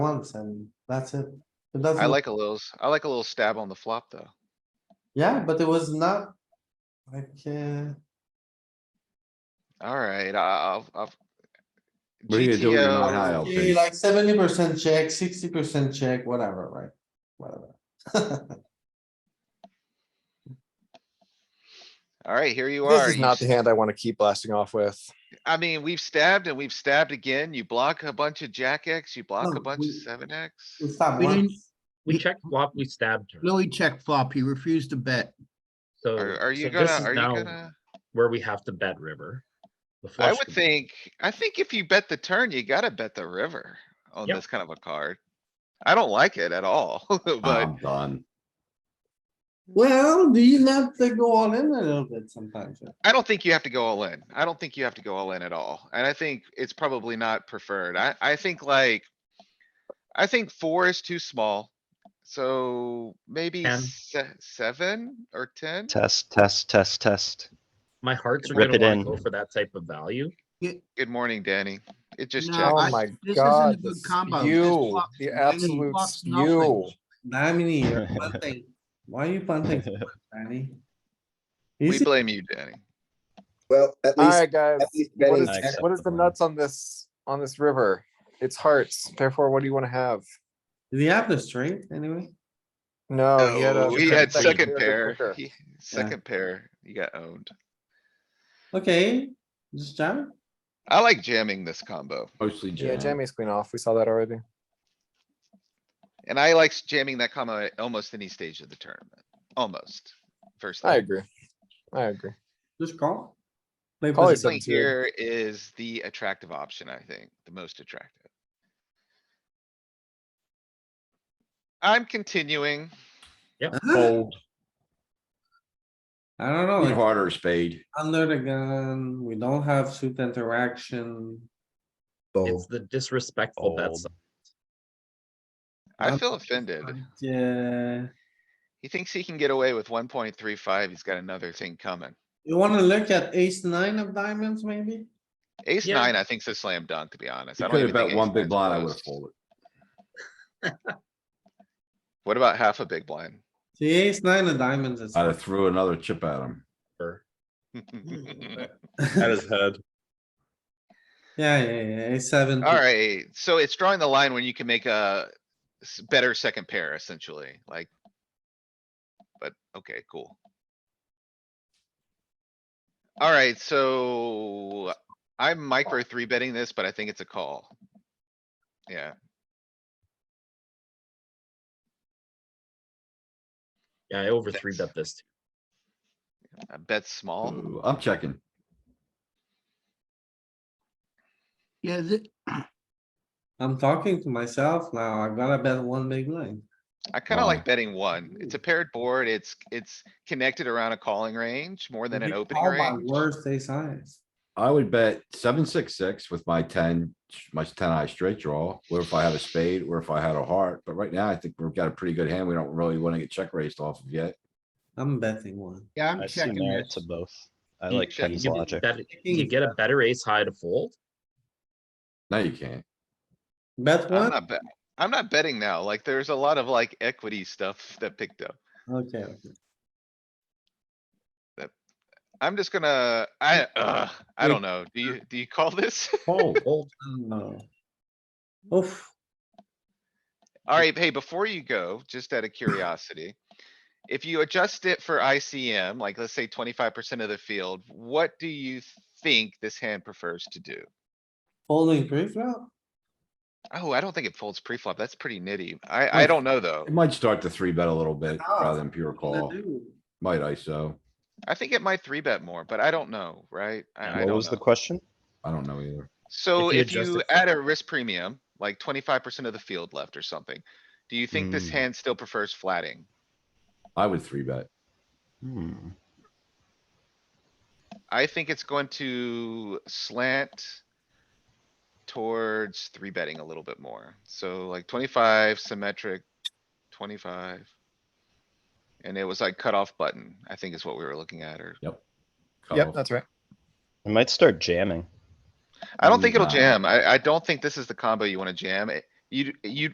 once and that's it. It doesn't, I like a little, s- I like a little stab on the flop, though. yeah, but it was not like, uh, Alright, I'll, I'll. What are you gonna do when you're not GTO, high? I'll eh, think. like seventy percent check, sixty percent check, whatever, right? Whatever. alright, here you This are. is you not the s- hand I want to keep blasting off with. I mean, we've stabbed and we've stabbed again. You block a bunch of jack X, you block No, a bunch we- of seven X. We stop We didn't- once. We checked flop, we stabbed her, Louis checked flop. He refused to bet. so. Are, are you so this gonna, is are you now gonna? Where we have to bet river. The I flush would to bet. think, I think if you bet the turn, you gotta bet the river on Yep. this kind of a card. I don't like it at all, but I'm done. Well, do you not uh, go all in a little bit sometimes? right? I don't think you have to go all in. I don't think you have to go all in at all. And I think it's probably not preferred. I, I think like. I think four is too small. So maybe Ten. se- seven or ten? Test, test, test, test. My hearts are Rip gonna it wanna in. go for that type of value. Good morning, Danny. It just No, checked. Oh I- my this isn't a god, good the combo. This spew, flop- the and absolute flop's spew. nothing. Damn you're punting. Why are you punting, so much, Danny? We Easy, blame you, Danny. Well, at least, Alright, guys, at least what betting, is, Nice. what is the nuts on this, on this river? It's hearts, therefore what do you wanna have? did he have the straight anyway? No, Oh, he had a. No, He Oh, had second pair. kicker. He- Second pair, you got owned. Okay, just jam. I like jamming this combo Mostly Yeah, jam. Jamie's queen off, we saw that already. and I like jamming that combo at almost any stage of the tournament, almost. First. I leg. agree, I agree. just call. Play Call it position. This one something to it. here is the attractive option, I think, the most attractive. I'm continuing. Huh? Fold, I don't know. even it's- harder spade. Under the gun, we don't have suit interaction. It's fold. the disrespectful Fold. bets. I Um, feel offended. Yeah, He thinks he can get away with one point three five. He's got another thing coming. you wanna look at ace nine of diamonds maybe? Ace Yeah. nine, I think's a slam dunk, to be honest. You I don't could have even think bet ace one big nine's blind, I close. would have folded. What about half a big blind? The ace nine of diamonds is. I'd have threw another chip at him. for- Yeah, head. yeah, yeah, ace seven. Alright, so it's drawing the line when you can make a s- better second pair essentially, like. But, okay, cool. Alright, so I'm micro three betting this, but I think it's a call. Yeah, Yeah, I over three bet this. too. I bet small. Ooh, I'm checking. Yeah, th- I'm talking to myself now. I gotta bet one big line. I kinda Why? like betting one. It's a paired board. It's, it's connected around a calling range more than an You opening call my range. Worst ace size. I would bet seven, six, six with my ten, my ten eye straight draw, or if I had a spade, or if I had a heart. But right now, I think we've got a pretty good hand. We don't really wanna get check raised off of yet. I'm betting one. yeah, I'm I see checking merit this. to both. I You like get- Ken's you get logic. better- You get a better ace high to fold. No, you can't. Bet I'm one? not bet, I'm not betting now. Like, there's a lot of like equity stuff that picked up. Okay, okay. I'm just gonna, I, uh, I Wait. don't know. Do you, do you call this? Fold. Fold. no. Oof, Alright, hey, before you go, just out of curiosity. If you adjust it for ICM, like let's say twenty-five percent of the field, what do you think this hand prefers to do? folding pre-flop? Oh, I don't think it folds pre-flop. That's pretty nitty. I, I Oof. don't know though. It might start to three bet a little bit Oh, rather than pure What Oh. call. to do? Might ISO. I think it might three bet more, but I don't know, right? I, I What don't was the know. question? I don't know either. So If you if adjust you it for- add a risk premium, like twenty-five percent of the field left or something, do you think this Mm. hand still prefers flatting? I would three bet. Hmm. I think it's going to slant towards three betting a little bit more. So like twenty-five symmetric, twenty-five. And it was like cutoff button, I think is what we were looking at, or Yep, Cutoff. that's right. I might start jamming. I don't think it'll Nah. jam. I, I don't think this is the combo you wanna jam. It- You, you